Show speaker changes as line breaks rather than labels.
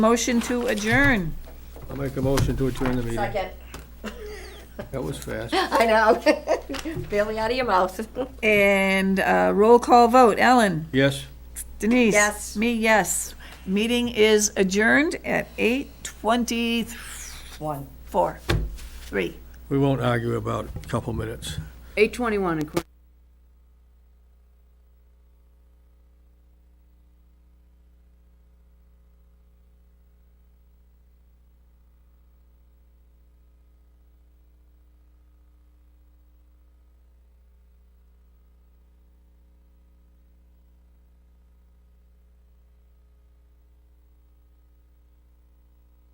Motion to adjourn.
I'll make a motion to adjourn the meeting.
Second.
That was fast.
I know. Barely out of your mouth.
And uh, roll call vote. Ellen?
Yes?
Denise?
Yes.
Me, yes. Meeting is adjourned at eight twenty-four,
One.
three.
We won't argue about a couple minutes.
Eight twenty-one, according